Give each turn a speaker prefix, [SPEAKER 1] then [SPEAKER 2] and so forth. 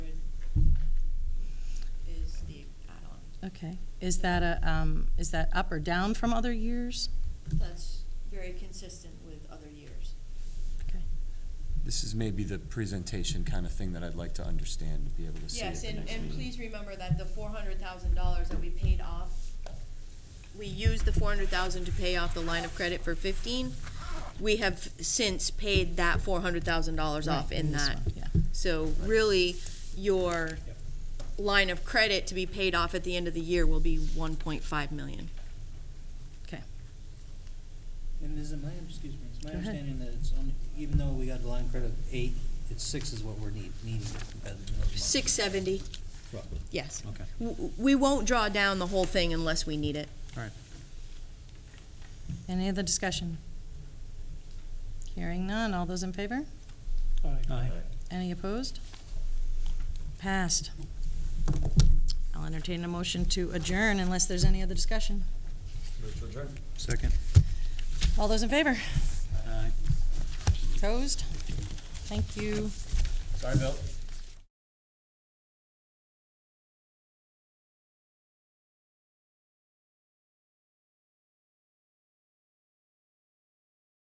[SPEAKER 1] Okay. Is that a, um, is that up or down from other years?
[SPEAKER 2] That's very consistent with other years.
[SPEAKER 1] Okay.
[SPEAKER 3] This is maybe the presentation kind of thing that I'd like to understand, to be able to see at
[SPEAKER 2] Yes,
[SPEAKER 3] the
[SPEAKER 2] and,
[SPEAKER 3] next
[SPEAKER 2] and please
[SPEAKER 3] meeting.
[SPEAKER 2] remember that the four hundred thousand dollars that we paid off, we used the four hundred thousand to pay off the line of credit for fifteen. We have since paid that four hundred thousand dollars off
[SPEAKER 1] Right,
[SPEAKER 2] in
[SPEAKER 1] this
[SPEAKER 2] that.
[SPEAKER 1] one, Yeah.
[SPEAKER 2] So really, your line of credit to be paid off at the end of the year will be one point five million.
[SPEAKER 1] Okay.
[SPEAKER 4] And is it my, excuse me, it's my
[SPEAKER 1] Go ahead.
[SPEAKER 4] understanding that it's only, even though we got the line credit of eight, it's six is what we're need, needing. at the end of the month.
[SPEAKER 2] Six seventy,
[SPEAKER 4] Roughly.
[SPEAKER 2] yes.
[SPEAKER 4] Okay,
[SPEAKER 2] W- w- We won't draw down the whole thing unless we need it.
[SPEAKER 4] all right.
[SPEAKER 1] Any other discussion? Hearing none. All those in favor?
[SPEAKER 4] Aye.
[SPEAKER 1] Any opposed? Passed. I'll entertain a motion to adjourn unless there's any other discussion.
[SPEAKER 4] Second.
[SPEAKER 1] All those in favor?
[SPEAKER 4] Aye.
[SPEAKER 1] Opposed? Thank you.
[SPEAKER 3] Sorry, Bill.